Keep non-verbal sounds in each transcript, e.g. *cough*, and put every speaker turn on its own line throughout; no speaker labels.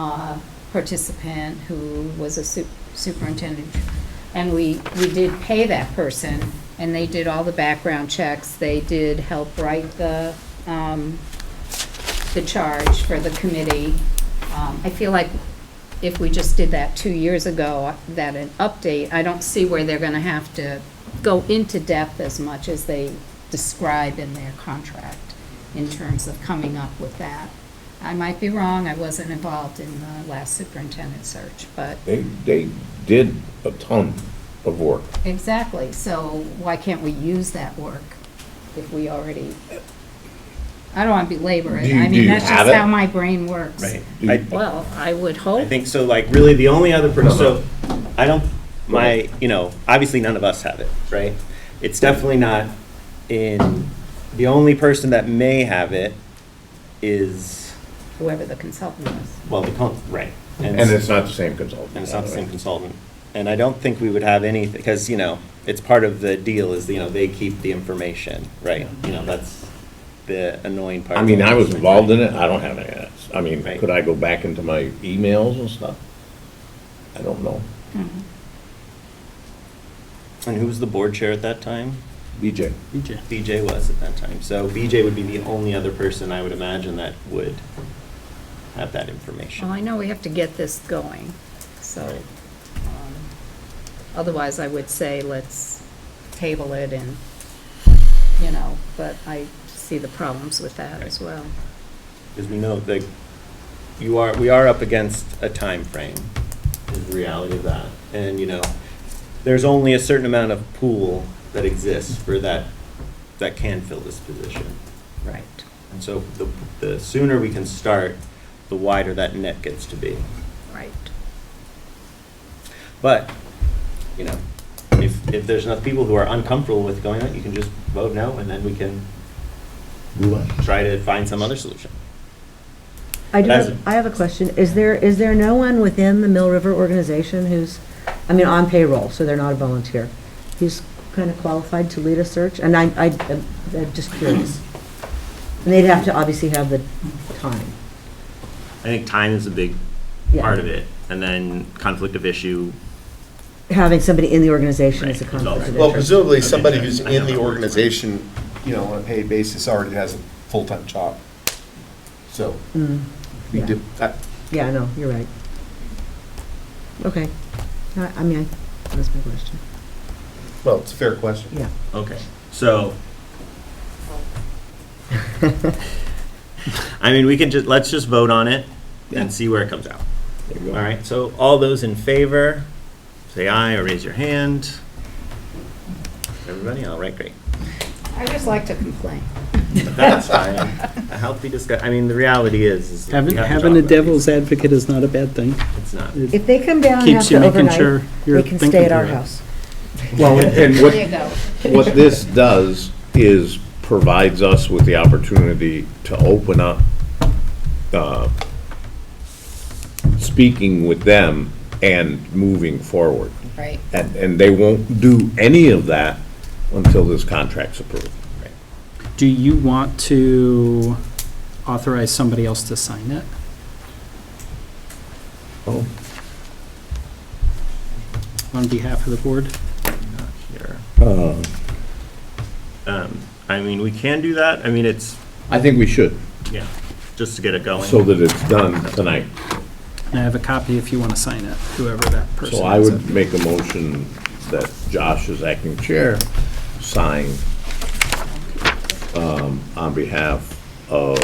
uh, participant who was a su- superintendent. And we, we did pay that person, and they did all the background checks, they did help write the, um, the charge for the committee. Um, I feel like if we just did that two years ago, that an update, I don't see where they're gonna have to go into depth as much as they describe in their contract in terms of coming up with that. I might be wrong, I wasn't involved in the last superintendent search, but,
They, they did a ton of work.
exactly, so why can't we use that work if we already? I don't wanna belabor
Do
it,
you-
I
do
mean,
you
that's
have
just
it?
how my brain works.
Right.
Do-
I,
Well, I would hope.
I think so, like, really, the only other person, so, I don't, my, you know, obviously none of us have it, right? It's definitely not in, the only person that may have it is,
whoever the consultant was.
well, the, con- right.
And it's not the same consultant.
And it's not the same consultant. And I don't think we would have any, because, you know, it's part of the deal is, you know, they keep the information, right? You know, that's the annoying part.
I mean, I was involved in it, I don't have any of that. I mean,
Right.
could I go back into my emails and stuff? I don't know.
Mm-hmm.
And who was the board chair at that time?
BJ,
BJ was at that time. So BJ would be the only other person I would imagine that would have that
Well,
information.
I know we have to get this going, so,
Right.
um, otherwise I would say let's table it and, you know, but I see the problems with that as well.
Because we know that you are, we are up against a time frame. is the reality of that. And, you know, there's only a certain amount of pool that exists for that, that can fill this position.
Right.
And so the, the sooner we can start, the wider that net gets to be.
Right.
But, you know, if, if there's enough people who are uncomfortable with going out, you can just vote no, and then we can try to find some other solution.
I do,
That's-
have- I have a question. Is there, is there no one within the Mill River organization who's, I mean, on payroll, so they're not a volunteer, who's kind of qualified to lead a search? And I, I, I'm just curious. And they'd have to obviously have the time.
I think time is a big
Yeah.
part of it, and then conflict of issue.
Having somebody in the organization is a
Right, it's all
conflict of
right.
Well,
interest.
presumably,
Okay,
somebody
sure.
who's
I know
in the
how it works.
organization, you know, on a paid basis already has a full-time job. So,
Mm,
we
yeah.
do, that-
Yeah, I know, you're right. Okay. I, I mean, I- that's my question.
well, it's a fair question.
Yeah.
Okay,
*laughs*
so. I mean, we can just, let's just vote on it
Yeah.
and see where it comes out.
there you
All
go.
right, so all those in favor, say aye or raise your hand. Everybody, all right, great.
I just like to complain.
That's fine. A healthy discuss, I mean, the reality is, is. we have
Having,
to
having a
talk about
devil's
these.
advocate is not a bad thing.
It's not.
It
If they come down and have
keeps you
to
making sure
overnight,
you're
they can
thinking
stay at our
through it.
house.
*laughs*
Well, and
There you
what,
go.
what this does is provides us with the opportunity to open up, uh, speaking with them and moving forward.
Right.
And, and they won't do any of that until this contract's approved.
Do you want to authorize somebody else to sign it?
Oh.
On behalf of the board?
Not here. Um, I mean, we can do that. I mean, it's,
I think we should,
yeah, just to get it going.
so that it's done tonight.
And I have a copy if you want to sign it, whoever that person is.
So I would make a motion that Josh as acting chair sign um, on behalf of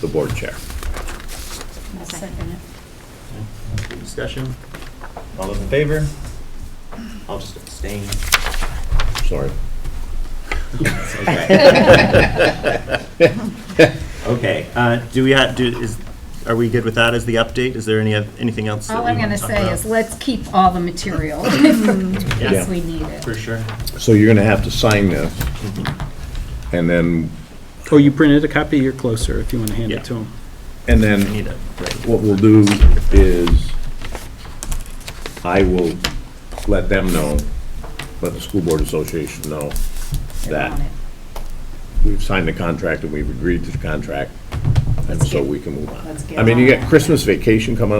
the board chair.
I'll second it.
Discussion. All those in favor? I'll just abstain.
Sorry.
Okay, uh, do we have, do, is, are we good with that as the update? Is there any, oth- anything else? that
All
we
I'm
wanna
gonna
talk
say
about? Mm-hmm.
is let's keep all the material *laughs* in case we need it.
For sure.
So you're going to have to sign this, and then,
Or Oh, you printed a copy, you're closer if you want to hand
Yeah.
it to them.
and then
Need it, right.
what we'll do is, I will let them know, let the school board association know
They
that
want it.
we've signed the contract and we've agreed to the contract, and
Let's
so
get-
we can move on.
let's get
I mean, you
on
got
it.
Christmas vacation coming